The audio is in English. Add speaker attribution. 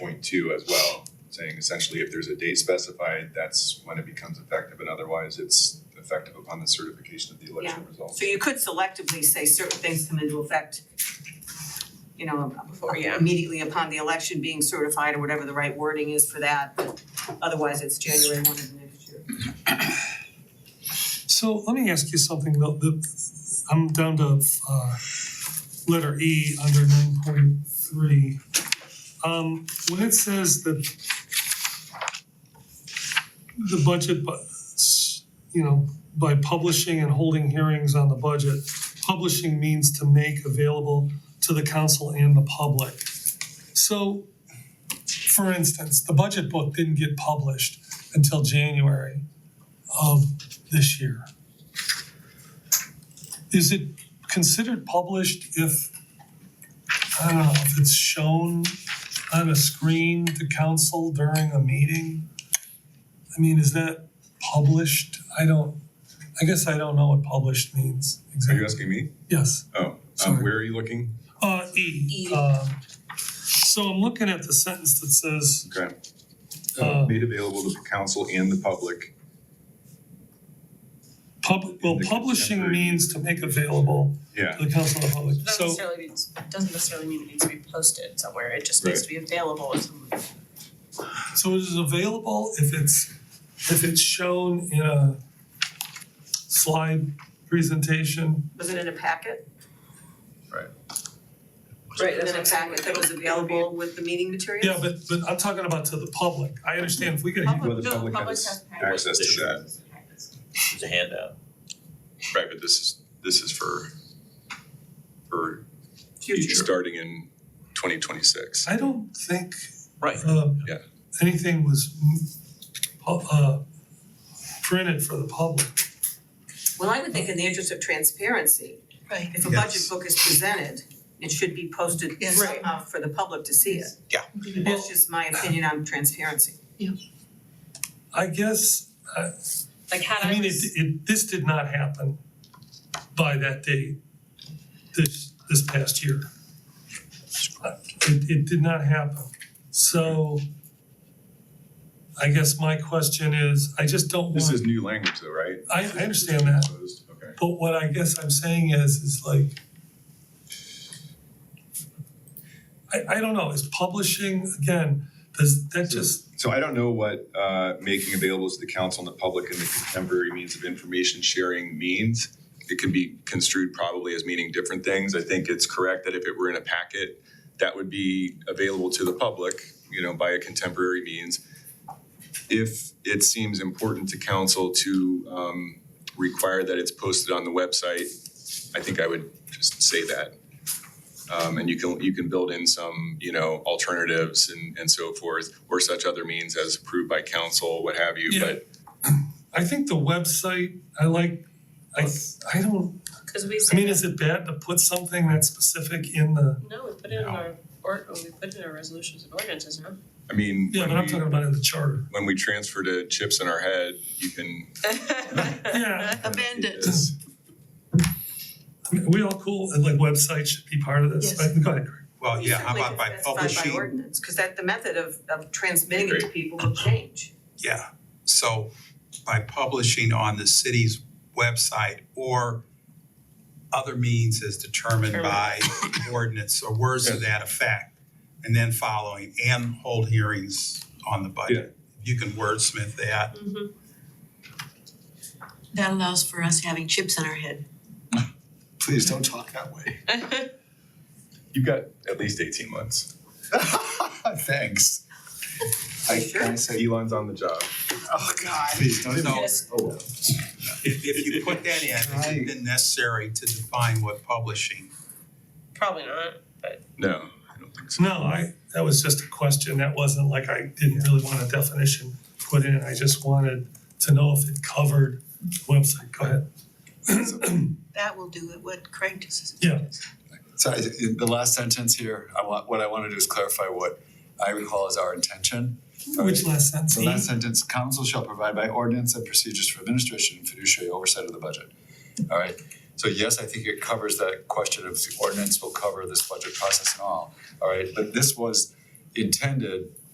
Speaker 1: point two as well, saying essentially if there's a date specified, that's when it becomes effective, and otherwise it's effective upon the certification of the election results.
Speaker 2: So you could selectively say certain things come into effect, you know, before,
Speaker 3: Yeah.
Speaker 2: immediately upon the election being certified or whatever the right wording is for that, but otherwise it's January one of the next year.
Speaker 4: So let me ask you something though, the, I'm down to uh letter E under nine point three. Um when it says that the budget, bu- s- you know, by publishing and holding hearings on the budget, publishing means to make available to the council and the public. So for instance, the budget book didn't get published until January of this year. Is it considered published if, I don't know, if it's shown on a screen to council during a meeting? I mean, is that published? I don't, I guess I don't know what published means
Speaker 1: Are you
Speaker 4: exactly.
Speaker 1: asking me?
Speaker 4: Yes,
Speaker 1: Oh, um,
Speaker 4: Sorry.
Speaker 1: where are you looking?
Speaker 4: uh, E.
Speaker 2: E.
Speaker 4: um, So I'm looking at the sentence that says,
Speaker 1: Okay.
Speaker 4: Uh,
Speaker 1: Made available to the council and the public.
Speaker 4: pub, well,
Speaker 1: The
Speaker 4: publishing
Speaker 1: contemporary-
Speaker 4: means to make available
Speaker 1: Yeah,
Speaker 4: to the council and the public,
Speaker 3: Not
Speaker 4: so.
Speaker 3: necessarily means, doesn't necessarily mean it needs to be posted somewhere, it just needs
Speaker 1: Right.
Speaker 3: to be available if someone.
Speaker 4: So it is available if it's, if it's shown in a slide presentation?
Speaker 2: Was it in a packet?
Speaker 3: Right,
Speaker 2: In a packet that was available with the meeting materials?
Speaker 4: Yeah, but, but I'm talking about to the public. I understand if we get,
Speaker 1: well, the
Speaker 3: no,
Speaker 1: public
Speaker 3: public
Speaker 1: has
Speaker 3: has access.
Speaker 1: access to that,
Speaker 5: It's a handout.
Speaker 1: right, but this is, this is for, for
Speaker 2: Future.
Speaker 1: starting in twenty twenty-six.
Speaker 4: I don't think,
Speaker 5: Right.
Speaker 4: uh,
Speaker 1: Yeah.
Speaker 4: anything was, mm, pu- uh, printed for the public.
Speaker 2: Well, I would think in the interest of transparency,
Speaker 3: Right.
Speaker 2: if a budget book is presented, it should be posted
Speaker 3: Yes.
Speaker 2: somehow for the public to see it.
Speaker 5: Yeah.
Speaker 2: That's just my opinion on transparency.
Speaker 4: I guess,
Speaker 3: Like had
Speaker 4: I
Speaker 3: I
Speaker 4: mean, it,
Speaker 3: was,
Speaker 4: it, this did not happen by that date, this, this past year. It, it did not happen, so I guess my question is, I just don't
Speaker 1: This is
Speaker 4: want,
Speaker 1: new language though, right?
Speaker 4: I, I understand that,
Speaker 1: Proposed, Okay.
Speaker 4: but what I guess I'm saying is, is like, I, I don't know, is publishing, again, does that just,
Speaker 1: So I don't know what uh, making available to the council and the public and the contemporary means of information sharing means. It can be construed probably as meaning different things. I think it's correct that if it were in a packet, that would be available to the public, you know, by a contemporary means. If it seems important to council to um, require that it's posted on the website, I think I would just say that. Um, and you can, you can build in some, you know, alternatives and, and so forth, or such other means as approved by council, what have you,
Speaker 4: Yeah.
Speaker 1: but
Speaker 4: I think the website, I like, I, I don't,
Speaker 3: cause we
Speaker 4: I
Speaker 3: said,
Speaker 4: mean, is it bad to put something that's specific in the,
Speaker 3: no, we put it in our, or, we put it in our resolutions and ordinances, no?
Speaker 1: I mean,
Speaker 4: yeah, but
Speaker 1: when
Speaker 4: I'm
Speaker 1: we-
Speaker 4: talking about in the charter.
Speaker 1: when we transfer to chips in our head, you can.
Speaker 4: Yeah.
Speaker 3: Abandoned.
Speaker 1: Yes.
Speaker 4: I mean, Are we all cool, and like websites should be part of this,
Speaker 3: Yes.
Speaker 4: right? Go ahead, Greg.
Speaker 6: Well, yeah, how about by
Speaker 2: You should specify by
Speaker 6: publishing,
Speaker 2: ordinance, because that, the method of, of transmitting it to people will change.
Speaker 6: yeah, so by publishing on the city's website or other means as determined by ordinance or words to that effect, and then following, and hold hearings on the budget. You can wordsmith that,
Speaker 3: Mm-hmm.
Speaker 7: That allows for us having chips in our head.
Speaker 8: Please don't talk that way.
Speaker 3: Mm-hmm.
Speaker 1: You've got at least eighteen months.
Speaker 8: Thanks. I,
Speaker 2: Sure.
Speaker 8: I said,
Speaker 1: Elon's on the job.
Speaker 8: oh God, please don't even.
Speaker 6: No.
Speaker 8: Oh, well.
Speaker 6: if if you put that in,
Speaker 8: Right.
Speaker 6: it's then necessary to define what publishing.
Speaker 3: Probably not.
Speaker 1: No, I don't think so.
Speaker 4: No, I, that was just a question, that wasn't like I didn't really want a definition put in, I just wanted to know if it covered website, go ahead.
Speaker 7: That will do it, what Craig does.
Speaker 4: Yeah.
Speaker 8: So I, in the last sentence here, I want, what I want to do is clarify what I recall as our intention.
Speaker 4: Which last sentence?
Speaker 8: The last sentence, council shall provide by ordinance and procedures for administration and fiduciary oversight of the budget. All right, so yes, I think it covers that question of the ordinance will cover this budget process and all, all right, but this was intended